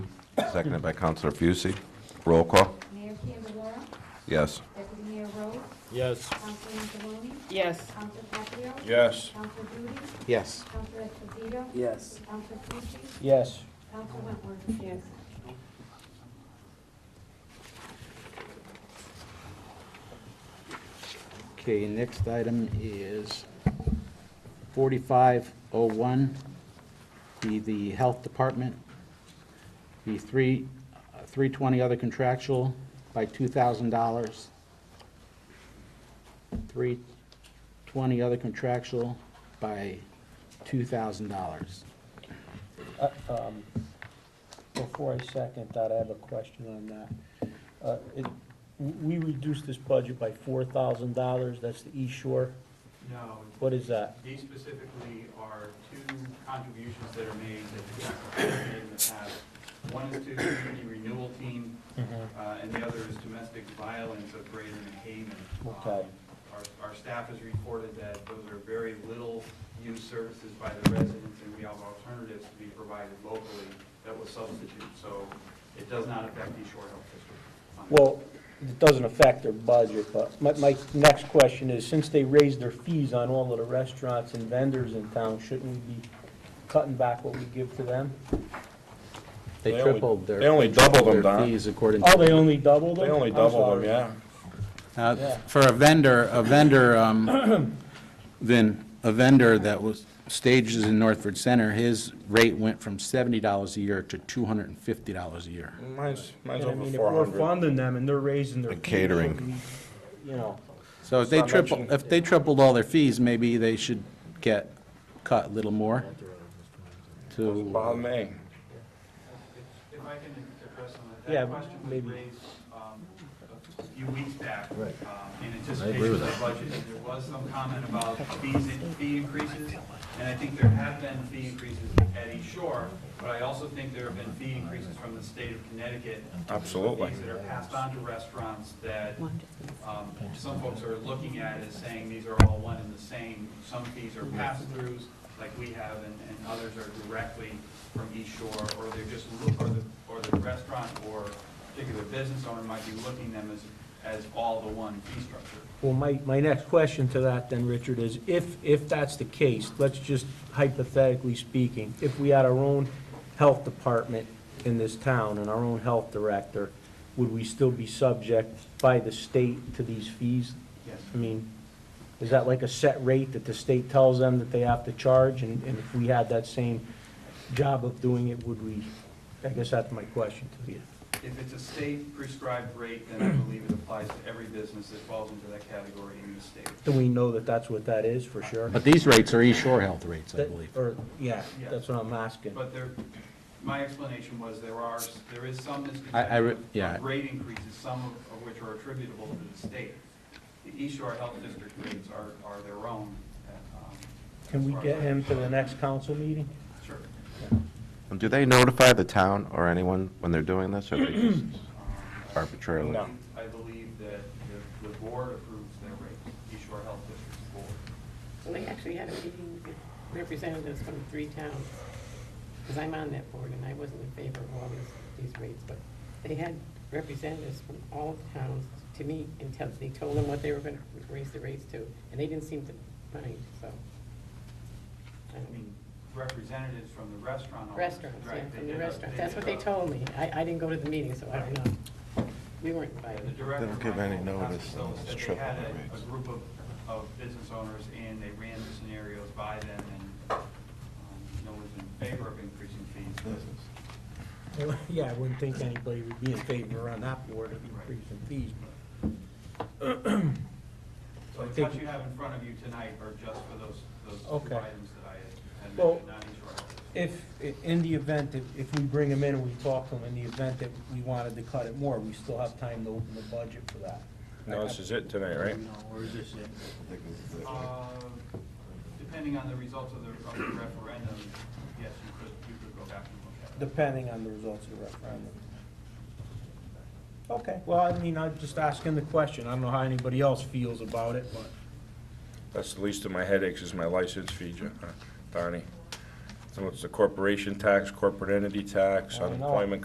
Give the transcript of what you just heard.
Seconded by Counselor Fucy. Roll call. Mayor Candelora, Yes. Deputy Mayor Rose, Yes. Councilman Deloney, Yes. Council Caprio, Yes. Council Duty, Yes. Council Esposito, Yes. Council Fuji, Yes. Council Wentworth. Yes. Okay, next item is 4501, be the Health Department, be 3, uh, 320 other contractual by $2,000. 320 other contractual by $2,000. Before I second that, I have a question on that. Uh, it- We reduced this budget by four thousand dollars, that's the East Shore. No, What is that? these specifically are two contributions that are made that the Jack made in the past. One is to the community renewal team, Mm-hmm. uh, and the other is domestic violence of Braden and Haven. Um, Okay. Our, our staff has reported that those are very little used services by the residents, and we have alternatives to be provided locally that will substitute, so it does not affect East Shore Health District. Um, Well, it doesn't affect their budget, but my, my next question is, since they raised their fees on all of the restaurants and vendors in town, shouldn't we be cutting back what we give to them? They They only- tripled their. they only doubled them, their Don. Fees according to. Oh, they only doubled them? They only I'm double them, sorry. yeah. Uh, Yeah. For a vendor, a vendor, um, then, a vendor that was stages in Northford Center, his rate went from $70 a year to $250 a year. Mine's, mine's And I over mean, if four we're hundred. funding them and they're raising their And fees. catering. we- You know, So if they Not triple, mentioning- if they tripled all their fees, maybe they should get cut a little more Bother to, me. If if I can address some of that. Yeah, That question was maybe. raised um, a few weeks back. Right. um, In anticipation of the budget, and there was some comment about fees, in- fee increases, and I think there have been fee increases at East Shore, but I also think there have been fee increases from the state of Connecticut. Absolutely. Fees that are passed on to restaurants that um, some folks are looking at as saying these are all one and the same. Some fees are pass-throughs, like we have, and, and others are directly from East Shore, or they're just, loo- or the, or the restaurant or particular business owner might be looking them as, as all the one fee structure. well, my, my next question to that then, Richard, is if, if that's the case, let's just hypothetically speaking, if we had our own health department in this town and our own health director, would we still be subject by the state to these fees? Yes. I mean, is that like a set rate that the state tells them that they have to charge? And and if we had that same job of doing it, would we, I guess that's my question to you. If it's a state prescribed rate, then I believe it applies to every business that falls into that category in the state. Do we know that that's what that is for sure? but these rates are East Shore Health rates, I That- believe. Or, yeah, that's what I'm asking. But there, my explanation was there are, there is some misconception. I- I re- of yeah. Rate increases, some of- of which are attributable to the state. The East Shore Health District rates are, are their own. uh, um, Can we get him to the next council meeting? Sure. And do they notify the town or anyone when they're doing this, or they just arbitrarily? No. Um, I believe that the, the board approves their rates, East Shore Health District's board. We actually had a meeting with representatives from three towns, because I'm on that board, and I wasn't in favor of all these- these rates, but they had representatives from all the towns to meet and tell, they told them what they were going to raise the rates to, and they didn't seem to mind, so. I I mean, mean, representatives from the restaurant. owners, Restaurants, yeah, right, from did the a- restaurants, did uh, that's what they a- told me. I, I didn't go to the meeting, so I don't know. We weren't invited. The director, They don't give any Michael notice, Costello, it's said they triple had the a, a rates. group of, of business owners and they ran the scenarios by them and, um, no one's in favor of increasing fees. Yeah, I wouldn't think anybody would be in favor on that board of increasing fees, but So I the think- cuts you have in front of you tonight are just for those, those two Okay. items that I had- had Well- mentioned, not each of our- if, in the event, that if we bring him in and we talk to him, in the event that we wanted to cut it more, we still have time to open the budget for that. No, this is it tonight, right? No, or is this it? Uh, Depending on the results of the, of the referendum, yes, you could, you could go back and look at it. depending on the results of the referendum. Okay, well, I mean, I'm just asking the question. I don't know how anybody else feels about it, but. That's the least of my headaches is my license fee, Jo- uh, Donnie. So it's the corporation tax, corporate entity tax, I know. unemployment